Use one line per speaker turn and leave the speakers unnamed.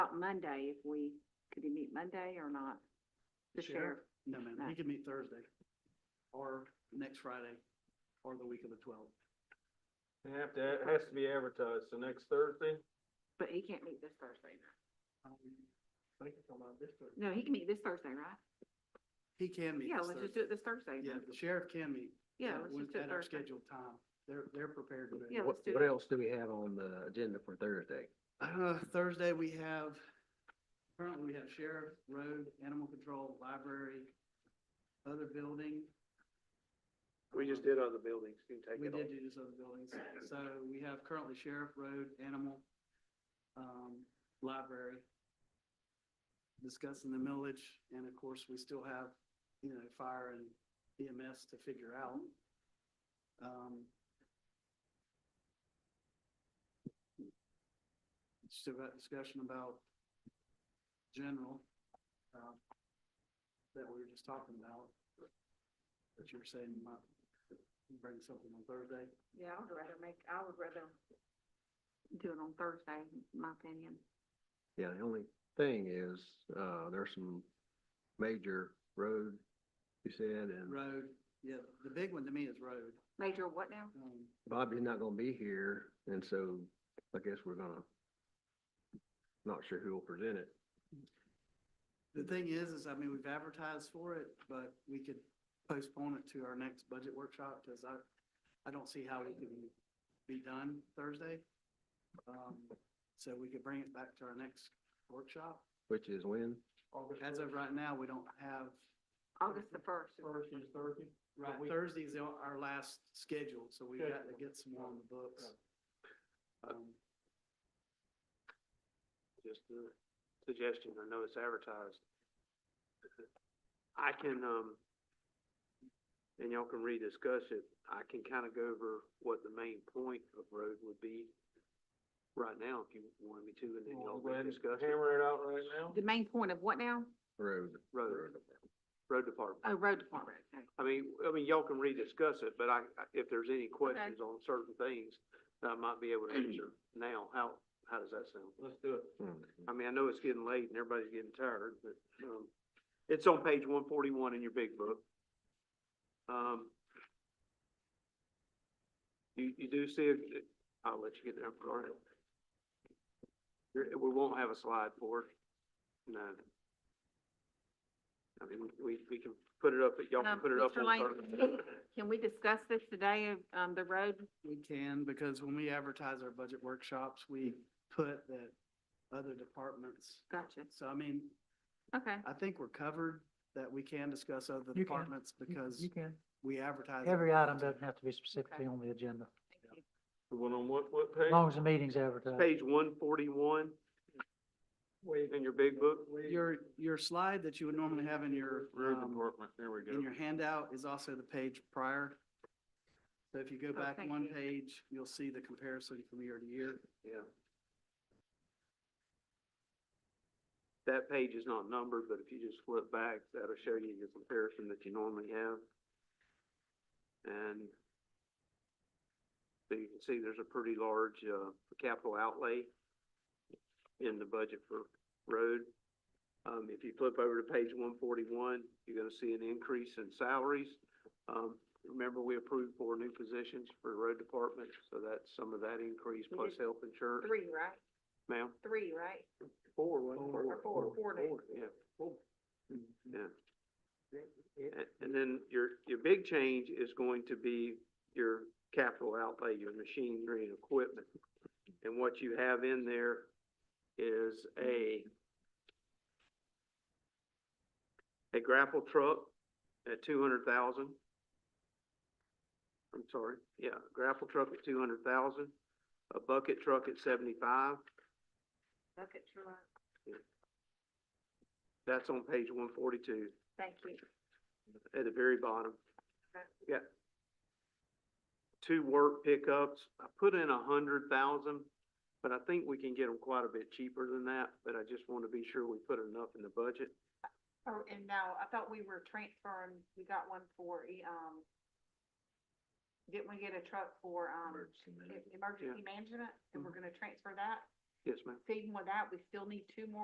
about Monday, if we, could he meet Monday or not? The sheriff,
No, ma'am,
No.
he can meet Thursday, or next Friday, or the week of the twelfth.
They have to, it has to be advertised, so next Thursday?
but he can't meet this Thursday. right?
Um, Thank you so much, this Thursday.
No, he can meet this Thursday, right?
He can meet
Yeah,
this
let's just do
Thursday.
it this Thursday.
Yeah,
then.
the sheriff can meet.
Yeah, let's
uh, when-
just do it
At our
Thursday.
scheduled time, they're, they're prepared to do it.
Yeah,
What,
let's do
what
it.
else do we have on the agenda for Thursday?
Uh, Thursday, we have, currently we have sheriff, road, animal control, library, other building. Um,
other buildings, you can
We did do these other buildings. So we have currently sheriff, road, animal, um, library, discussing the millage, and of course, we still have, you know, fire and EMS to figure out. Um, Still got discussion about general, um, that we were just talking about, that you were saying you might bring something on Thursday.
Yeah, I would rather make, I would rather do it on Thursday, in my opinion.
Yeah, the only thing is, uh, there's some major road, you said, and
Road, yeah, the big one to me is road.
Major, what now?
Um,
Bobby's not gonna be here, and so I guess we're gonna, not sure who will present it.
The thing is, is I mean, we've advertised for it, but we could postpone it to our next budget workshop because I, I don't see how it can be done Thursday. Um, So we could bring it back to our next workshop.
Which is when?
As of right now, we don't have,
August the first.
First is Thursday?
right,
we-
Thursday's our our last schedule, so we've got to get some more on the books. Um,
Just a suggestion, I know it's advertised. I can, um, and y'all can rediscuss it, I can kind of go over what the main point of road would be right now, if you wanted me to, and then y'all can discuss it. Hammer it out right now?
The main point of what now?
Road.
Road, road department.
Oh, road department. Okay.
I mean, I mean, y'all can rediscuss it, but I, I- if there's any questions on certain things that I might be able to answer now, how, how does that sound? Let's do it.
Hmm.
Um,
I mean, I know it's getting late and everybody's getting tired, but, um, it's on page one forty-one in your big book. Um, you, you do see, it- I'll let you get there, I'm sorry. You're- We won't have a slide for it, no. I mean, we, we can put it up, but y'all can
Um,
put it up
Mr.
on
Lane?
Thursday.
Can we discuss this today of, um, the road?
We can, because when we advertise our budget workshops, we put that other departments.
Gotcha.
So I mean,
Okay.
I think we're covered that we can discuss other
You can.
departments
You-
because
You can.
we advertise.
Every item
everything.
doesn't have to be specifically on the agenda,
Thank you.
The one on what, what
as long as the meeting's advertised.
Page one forty-one. In your big book.
Your, your slide that you would normally have in your,
Road
um,
department, there we
in
go.
your handout is also the page prior. So if you go
Oh,
back
thank
one
you.
page, you'll see the comparison from year to year.
Yeah. That page is not numbered, but if you just flip back, that'll show you the comparison that you normally have. And so you can see there's a pretty large, uh, capital outlay in the budget for road. Um, if you flip over to page one forty-one, you're gonna see an increase in salaries. Um, remember, we approved four new positions for road department, so that's some of that increase
We
plus
did
health insurance.
Three, right?
Ma'am?
Three, right?
Four,
Four.
Or four, four days.
Yeah. Yeah. And, and then your, your big change is going to be your capital outlay, your machinery and equipment. And what you have in there is a a grapple truck at two hundred thousand. I'm sorry, yeah, grapple truck at two hundred thousand, a bucket truck at seventy-five,
Look at your, line.
that's on page one forty-two.
thank you.
at the very bottom.
Okay.
Yeah. Two work pickups. I put in a hundred thousand, but I think we can get them quite a bit cheaper than that, but I just want to be sure we put enough in the budget.
Oh, and now, I thought we were transferring, we got one for, e- um, didn't we get a truck for, um, e- emergency management? And we're gonna transfer that?
Yes, ma'am?
So Even with that, we still need two more